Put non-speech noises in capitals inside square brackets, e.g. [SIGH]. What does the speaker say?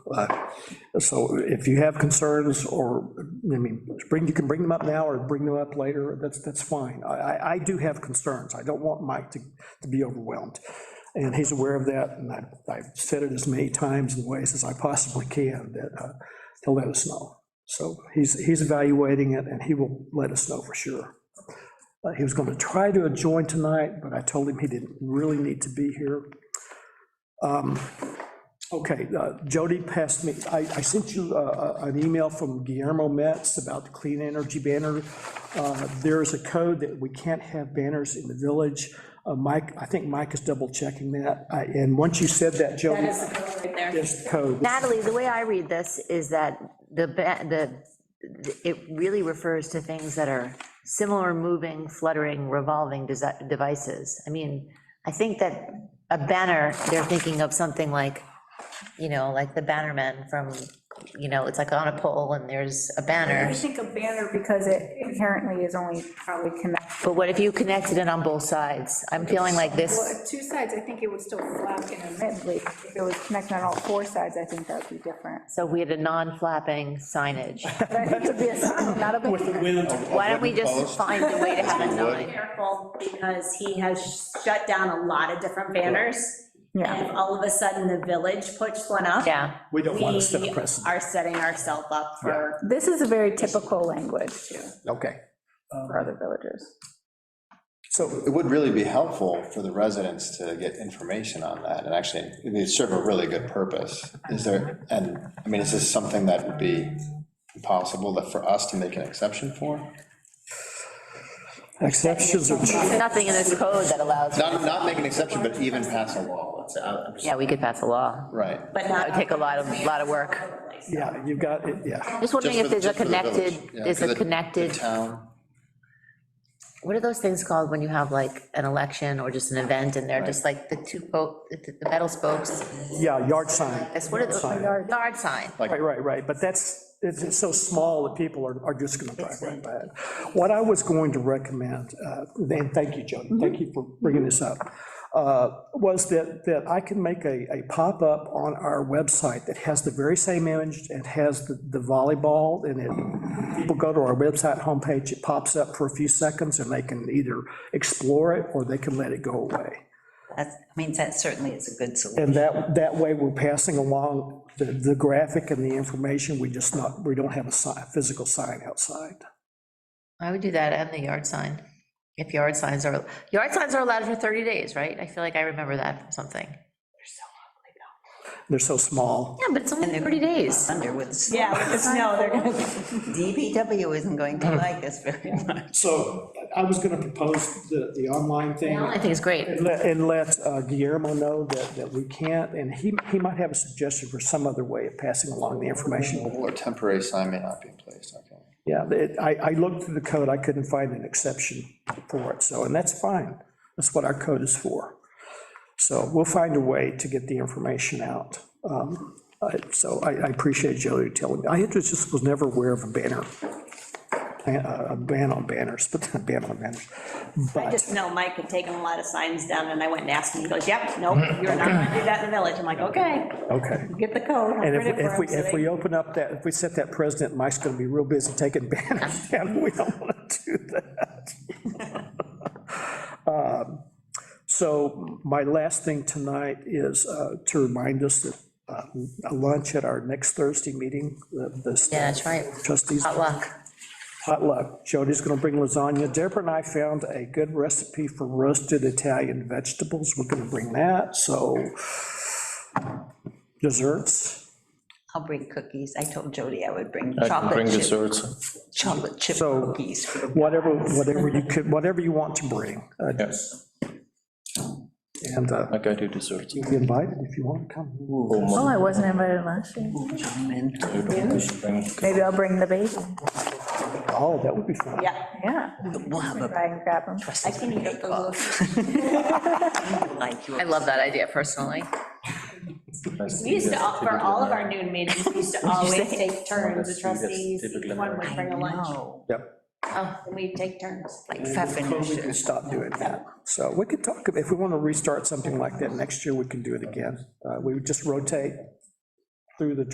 uh, so if you have concerns, or, I mean, bring, you can bring them up now or bring them up later, that's, that's fine. I, I- I do have concerns, I don't want Mike to, to be overwhelmed, and he's aware of that, and I- I've said it as many times and ways as I possibly can, that, uh, to let us know. So he's, he's evaluating it, and he will let us know for sure. Uh, He was going to try to join tonight, but I told him he didn't really need to be here. Um, Okay, uh, Jody passed me, I, I sent you uh, uh, an email from Guillermo Metz about the clean energy banner. Uh, There is a code that we can't have banners in the village. Uh, Mike, I think Mike is double checking that, I- and once you said that, Jody, That is the code right there. this code. Natalie, the way I read this is that the, ba- the, it really refers to things that are similar moving, fluttering, revolving desi- devices. I mean, I think that a banner, they're thinking of something like, you know, like the bannerman from, you know, it's like on a pole and there's a I banner. think a banner, because it inherently is only probably connected. But what if you connected it on both sides? I'm feeling like this, Well, two sides, I think it would still flap intermittently. If it was connected on all four sides, I think that would be different. so we had a non-flapping signage. But I think it'd be a sign, not a banner. Why don't we just find a way to have a Wood. sign? careful, because he has shut down a lot of different banners. And Yeah, if all of a sudden the village puts one up. Yeah. We don't want to set we a precedent. Are setting ourselves up for, this is a very typical language too, Okay. Um, for other villages. So, It would really be helpful for the residents to get information on that, and actually, it would serve a really good purpose. Is there, and, I mean, is this something that would be possible that for us to make an exception for? exceptions are, Nothing in this code that allows, Not, not make an exception, but even pass a law, let's say, I- I'm just, yeah, we could pass a law. right. but That would not. take a lot of, lot of work. yeah, you've got, it. yeah, Just wondering Just if for the- there's a just for the village, connected, yeah, there's for the- a the connected, Town, what are those things called when you have like an election or just an event and they're just like the two, bo- the the metal spokes? yeah, yard sign. That's what it's, yard sign. Right, right, right, but that's, it's, it's so small that people are, are just gonna drive right by it. What I was going to recommend, uh, and thank you, Jody, thank you for bringing this up, uh, was that, that I can make a, a pop-up on our website that has the very same image, and has the the volleyball, and it, people go to our website homepage, it pops up for a few seconds, and they can either explore it, or they can let it go away. That's, I mean, that certainly is a good solution. And that, that way, we're passing along the, the graphic and the information, we just not, we don't have a sign, physical sign outside. I would do that and the yard sign. If yard signs are, yard signs are allowed for 30 days, right? I feel like I remember that from something. They're so small. Yeah, but it's only 30 days. Under with. Yeah, with the snow, they're gonna [LAUGHS] DPW isn't going [LAUGHS] to like us very much. So I was gonna propose the, the online thing. I think it's great. And let- And let uh, Guillermo know that, that we can't, and he, he might have a suggestion for some other way of passing along the information. or temporary sign may not be in place, okay. Yeah, it- I, I looked through the code, I couldn't find an exception for it, so, and that's fine. That's what our code is for. So we'll find a way to get the information out. Um, I- So I, I appreciate Jody telling me. I just just was never aware of a banner, a a ban on banners, but [LAUGHS] a ban on banners. I just know Mike had taken a lot of signs down, and I went and asked him, he goes, yep, nope, Mm-hmm. you're not gonna do that in the village. I'm like, okay, Okay. get the code. I'll And if, print it if for we, him, so if they- we open up that, if we set that president, Mike's gonna be real busy taking [LAUGHS] banners down, we don't wanna do that. [LAUGHS] Um, So my last thing tonight is uh, to remind us that uh, a lunch at our next Thursday meeting, the the Yeah, that's right. trustees Hot luck. potluck. Jody's gonna bring lasagna. Deborah and I found a good recipe for roasted Italian vegetables, we're gonna bring that, so desserts. I'll bring cookies. I told Jody I would bring I can chocolate bring chip, desserts. chocolate chip So- cookies. for the- whatever, whatever you could, whatever you want to bring. uh, Yes, And uh, like I do desserts. you'll be invited if you want to come. Oh, I wasn't invited last year. Maybe I'll bring the baby. Oh, that would be fun. Yeah, Yeah, We'll have a try and grab them. I can [LAUGHS] eat it. Like I yours. love that idea personally. [LAUGHS] we used to, for all of our noon meetings, we used to always take turns, the trustees, each one would I bring a lunch, know, Yep. and we'd take turns. like We pfeffernusse. can stop doing that. So we could talk, if we want to restart something like that next year, we can do it again. Uh, We would just rotate through the